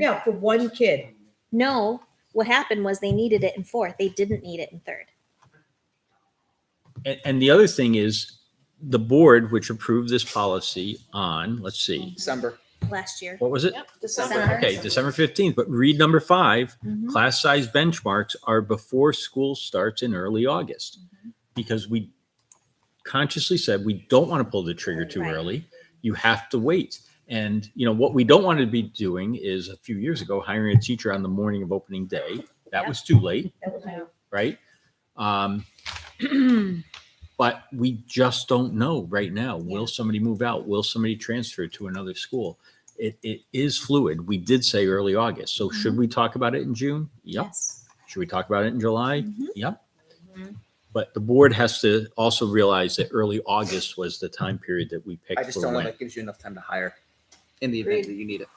Yeah, for one kid. No, what happened was they needed it in fourth. They didn't need it in third. And, and the other thing is the board, which approved this policy on, let's see, December. last year. what was it? December. Okay, December 15th, but read number five, class size benchmarks are before school starts in early August. Because we consciously said we don't want to pull the trigger too Right. early. You have to wait. And, you know, what we don't want to be doing is a few years ago hiring a teacher on the morning of opening day. That was too late, That was my- right? Um, but we just don't know right now. Will somebody move out? Will somebody transfer to another school? It, it is fluid. We did say early August. So should Mm-hmm. we talk about it in June? Yep. Yes. Should we talk about it in July? Mhm. Yep. Mhm. But the board has to also realize that early August was the time period that we I picked just for don't know if when. that gives you enough time to hire in the event that you need it.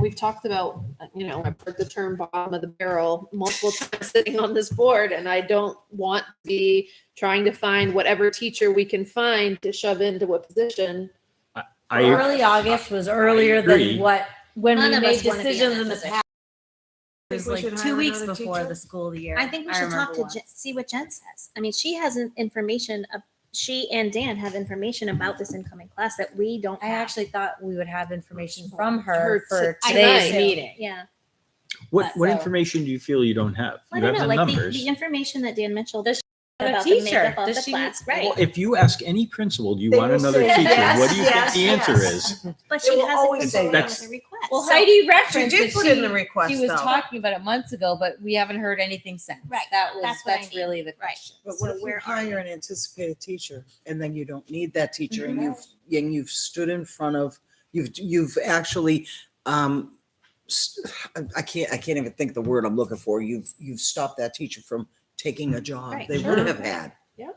We've talked about, uh, you know, I've heard the term bottom of the barrel multiple times sitting on this board, and I don't want to be trying to find whatever teacher we can find to shove into what position. I, Early August was earlier agree. than what, when None we of made us wanna be in decisions that in the position. past. It was Think we like should two hire weeks another before teacher? the school year. I think we should talk remember to once. Jen, see what Jen says. I mean, she has an information. Of, she and Dan have information about this incoming class that we don't. I have. actually thought we would have information from Her her for t- today's tonight. meeting. yeah. what, what So- information do you feel you don't have? I You don't have know, the like the, numbers. the information that Dan Mitchell does have a about the teacher? makeup of Does the she- class, right? Well, If you ask any principal, do you They want will another say teacher? yes, What do you think yes, the answer yes. is? but they she will always hasn't say come up yes. with a request. Well, So- Heidi She referenced did that put in she, the request she was though. talking about it months ago, but we haven't heard anything since. Right. That was, That's what I that's mean. really the Right. question. But So what if you where are you? hire an anticipated teacher and then you don't need that teacher and Mhm. you've, and you've stood in front of, you've, you've actually, um, s- I can't, I can't even think the word I'm looking for. You've, you've stopped that teacher from taking a job Right, they sure. would have had.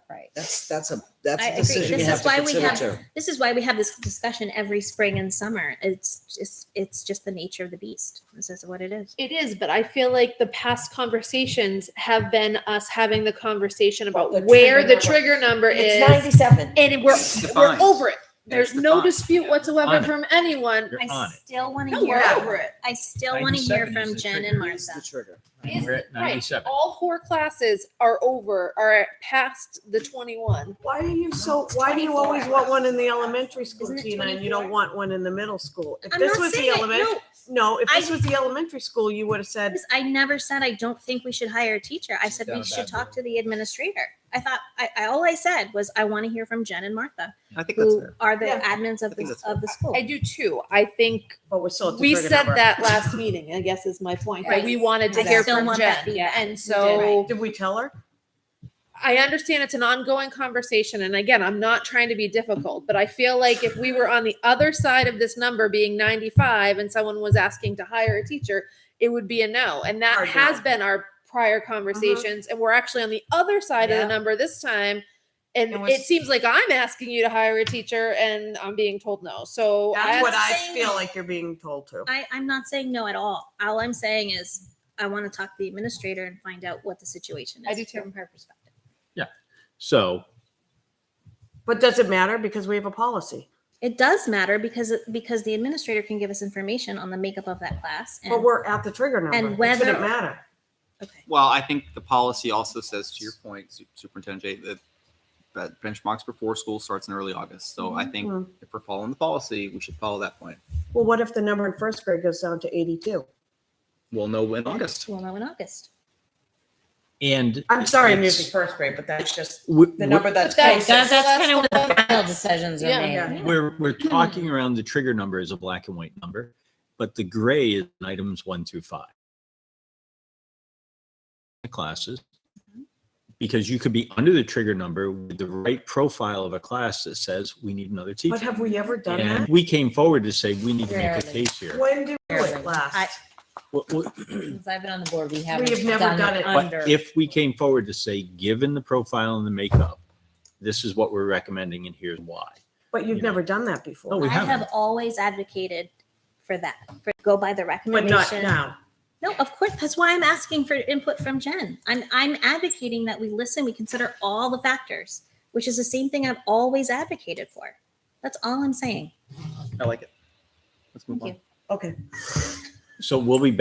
Right. That's, that's a, that's I a agree. decision you This have is to why we consider have- too. this is why we have this discussion every spring and summer. It's just it's just the nature of the beast. This is what it is. It is, but I feel like the past conversations have been us having the conversation about Well, the where trigger the number. trigger number It's is, ninety-seven. and we're, It's we're defined. over it. There's It's no defined. dispute whatsoever On it. from anyone. You're I on it. still want to No, hear. we're over it. I still want to hear 97 from is the Jen trigger. and It's Martha. the trigger. Is- We're at right. 97. All four classes are over, are past the twenty-one. Why do you so, why do you always want one in the elementary school, Isn't it Tina, and you 24? don't want one in the middle school? If I'm this not was the saying it- elementary, no, if I- this was the elementary school, you would have said, Because I never said I don't think we should hire a teacher. I said Down we a should bad talk to the administrator. I thought I, I all I said was I want to hear from Jen and Martha, I think that's who fair. are the Yeah. admins of I think the that's of the school. I do too. I think but "Oh, we're still. at the we trigger said number. that last meeting, I guess is my point, that we Right. wanted to I hear still from want Jen. that Yeah, feedback. and Right. so Did we tell her? I understand it's an ongoing conversation. And again, I'm not trying to be difficult, but I feel like if we were on the other side of this number being 95 and someone was asking to hire a teacher, it would be a no. And that Hard no. Uh-huh. has been our prior conversations. And we're actually on the other side Yeah. of the number this time. And And we're it s- seems like I'm asking you to hire a teacher and I'm being told no. So That's what I saying- feel like you're being told to. I, I'm not saying no at all. All I'm saying is I want to talk to the administrator and find out what the situation is I do too. from her perspective. So But does it matter? Because we have a policy. It does matter because because the administrator can give us information on the makeup of that class. And But we're at the trigger number. and It whether- shouldn't matter. okay. Well, I think the policy also says, to your point, Su- Superintendent Jay, that, that benchmarks before school starts in early August. So I think Mhm. Mm-hmm. if we're following the policy, we should follow that point. Well, what if the number in first grade goes down to eighty-two? We'll know in August. We'll know in August. and I'm sorry, I'm it's- using first grade, but that's just w- the w- number that's But Right, that's- closest. that- that's kind of that's when the the one final decisions are Yeah. made. Yeah. We're we're talking around the trigger number as a black and white number, but the gray is in items one through five. The Classes. Because you could be under the trigger number with the right profile of a class that says we need another But teacher. have we ever done And that? we came forward to say we need to make a Rarely. case here. When did we do it I- last? Well, well, Since I've been on the board, we haven't have never done done it. it But under. if we came forward to say, given the profile and the makeup, this is what we're recommending and here's why. But you you've know. never done that No, before. Oh, we I have haven't. always advocated for that. For go by the But not recommendation. now. No, of course. That's why I'm asking for input from Jen. I'm I'm advocating that we listen, we consider all the factors, which is the same thing I've always advocated for. That's all I'm saying. I like it. Let's move Thank on. you. Okay. So we'll be